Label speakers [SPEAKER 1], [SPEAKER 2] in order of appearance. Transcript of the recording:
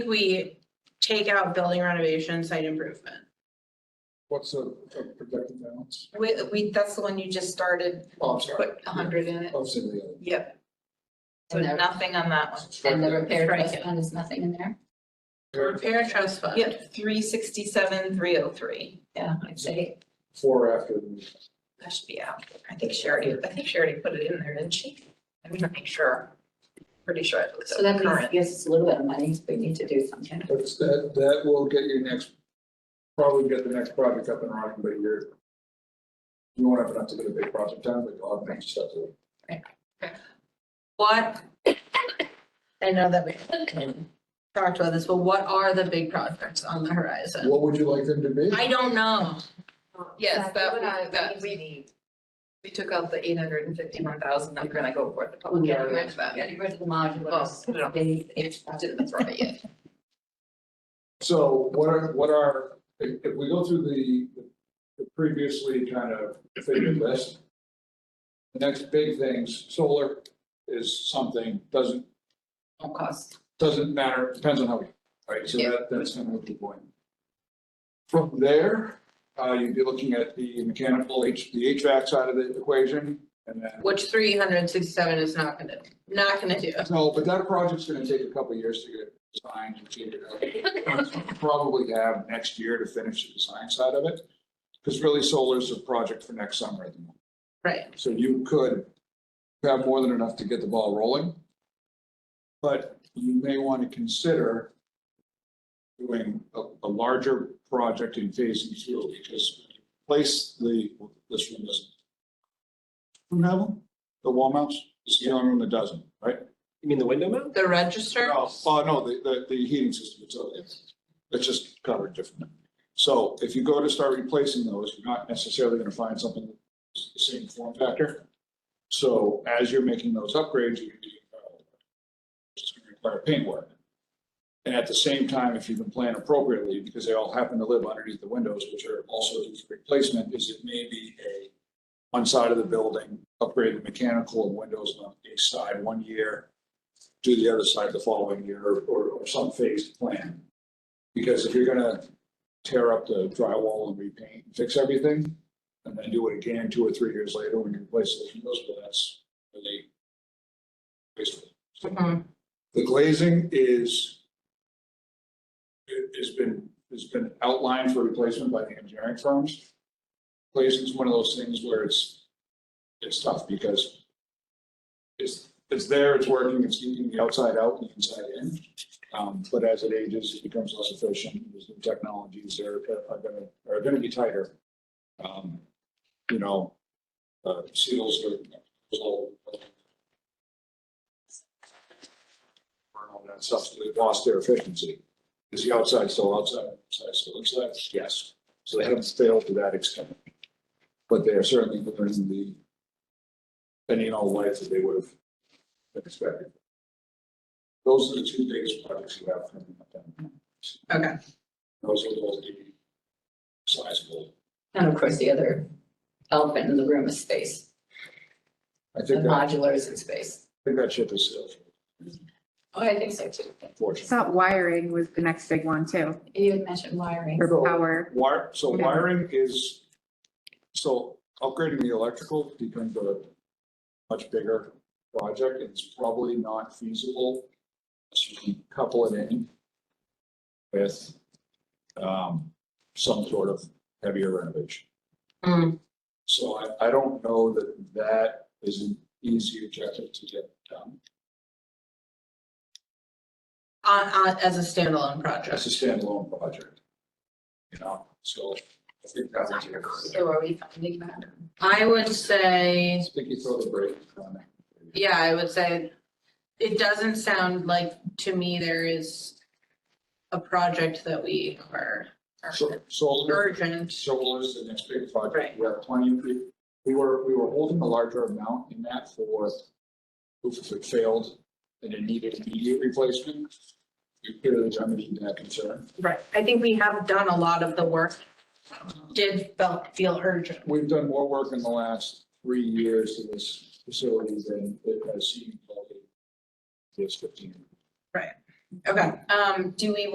[SPEAKER 1] we take out building renovation, site improvement.
[SPEAKER 2] What's a a projected balance?
[SPEAKER 1] We, we, that's the one you just started,
[SPEAKER 2] Oh, I'm sorry.
[SPEAKER 1] put a hundred in it.
[SPEAKER 2] I'll say the other.
[SPEAKER 1] Yep. So
[SPEAKER 3] And the-
[SPEAKER 1] nothing on that one.
[SPEAKER 3] And the repair
[SPEAKER 1] Strike
[SPEAKER 3] trust
[SPEAKER 1] it.
[SPEAKER 3] fund is nothing in there?
[SPEAKER 1] Repair trust fund.
[SPEAKER 4] Yep, three sixty-seven, three oh three.
[SPEAKER 3] Yeah, I'd say,
[SPEAKER 2] Four after, the-
[SPEAKER 1] That should be out. I think she already, I think she already put it in there, didn't she? I'm not sure. Pretty sure it was
[SPEAKER 3] so that means,
[SPEAKER 1] current.
[SPEAKER 3] gives us a little bit of money, we need to do something.
[SPEAKER 2] that's, that, that will get you next, probably get the next project up and running, but you're, you won't have enough to get a big project done, but you'll have next stuff to.
[SPEAKER 1] What? I know that we talked about this, but what are the big projects on the horizon?
[SPEAKER 2] What would you like them to be?
[SPEAKER 1] I don't know. Yes, that
[SPEAKER 4] what I-
[SPEAKER 1] we, that we We took out the eight hundred and fifty-one thousand, I'm gonna go for the public
[SPEAKER 3] Yeah.
[SPEAKER 1] hearing for that.
[SPEAKER 3] Get rid of the
[SPEAKER 1] Well, put it on.
[SPEAKER 3] modulars. They- it's-
[SPEAKER 1] Didn't throw it yet.
[SPEAKER 2] So what are, what are, if, if we go through the, the previously kind of figured list, the next big things, solar is something, doesn't,
[SPEAKER 1] Won't cost.
[SPEAKER 2] doesn't matter, depends on how we, right, so
[SPEAKER 1] Yeah.
[SPEAKER 2] that, that's kind of the point. From there, uh, you'd be looking at the mechanical H, the HVAC side of the equation, and then,
[SPEAKER 1] Which three hundred and sixty-seven is not gonna, not gonna do.
[SPEAKER 2] no, but that project's gonna take a couple of years to get designed and figured out. Probably have next year to finish the design side of it, because really solar's a project for next summer at the moment.
[SPEAKER 1] Right.
[SPEAKER 2] So you could have more than enough to get the ball rolling. But you may want to consider doing a, a larger project in phase two because place the, this one doesn't. Who have them? The wall mounts? This is the only one that doesn't, right?
[SPEAKER 5] You mean the window mount?
[SPEAKER 1] The register,
[SPEAKER 2] No, oh, no, the, the, the heating system, it's, uh, it's- it's just covered differently. So if you go to start replacing those, you're not necessarily gonna find something that's the same form factor. So as you're making those upgrades, you're gonna be, uh, it's gonna require paint work. And at the same time, if you can plan appropriately, because they all happen to live underneath the windows, which are also used for replacement, is it may be a one side of the building, upgrade the mechanical and windows on the east side one year, do the other side the following year or, or or some phased plan. Because if you're gonna tear up the drywall and repaint, fix everything, and then do it again two or three years later when you replace those windows, well, that's really wasteful.
[SPEAKER 1] Mhm.
[SPEAKER 2] The glazing is it has been, has been outlined for replacement by the engineering firms. Glazing is one of those things where it's, it's tough because it's, it's there, it's working, it's keeping the outside out and the inside in. Um, but as it ages, it becomes less efficient, there's new technologies that are, are gonna, are gonna be tighter. Um, you know, uh, seals are, all- burn all that stuff, they lost their efficiency. Is the outside still outside, inside still inside? Yes. So they haven't failed to that extent. But they are certainly within the, any and all life that they would have expected. Those are the two biggest projects you have coming up.
[SPEAKER 1] okay,
[SPEAKER 2] Those are those the sizable.
[SPEAKER 3] And of course, the other elephant in the room is space,
[SPEAKER 2] I
[SPEAKER 3] the
[SPEAKER 2] think that, I
[SPEAKER 3] modulars in space.
[SPEAKER 2] think that ship is sailed,
[SPEAKER 3] Oh, I think so too.
[SPEAKER 6] I
[SPEAKER 2] unfortunately.
[SPEAKER 6] thought wiring was the next big one too,
[SPEAKER 3] You had mentioned wiring.
[SPEAKER 6] or
[SPEAKER 2] So-
[SPEAKER 6] power.
[SPEAKER 2] Wire, so
[SPEAKER 6] Okay.
[SPEAKER 2] wiring is, so upgrading the electrical becomes a much bigger project. and It's probably not feasible. unless you can couple it in with um, some sort of heavier renovation.
[SPEAKER 1] Hmm.
[SPEAKER 2] So I, I don't know that that is an easy objective to get done
[SPEAKER 1] on, on, as a standalone project.
[SPEAKER 2] as a standalone project. You know, so I think that would be a-
[SPEAKER 3] So are we finding that?
[SPEAKER 1] I would say,
[SPEAKER 2] I think you throw the brake on it.
[SPEAKER 1] yeah, I would say, it doesn't sound like, to me, there is a project that we are are
[SPEAKER 2] So, solar,
[SPEAKER 1] urgent.
[SPEAKER 2] solar is the next big
[SPEAKER 1] Right.
[SPEAKER 2] project. We have plenty of, we- we were, we were holding a larger amount in that for if it failed and it needed immediate replacement. We clearly remedied that concern.
[SPEAKER 1] Right, I think we have done a lot of the work, did felt, feel urgent.
[SPEAKER 2] We've done more work in the last three years to this facility than it has seen probably this fifteen.
[SPEAKER 1] Right. Okay, um, do we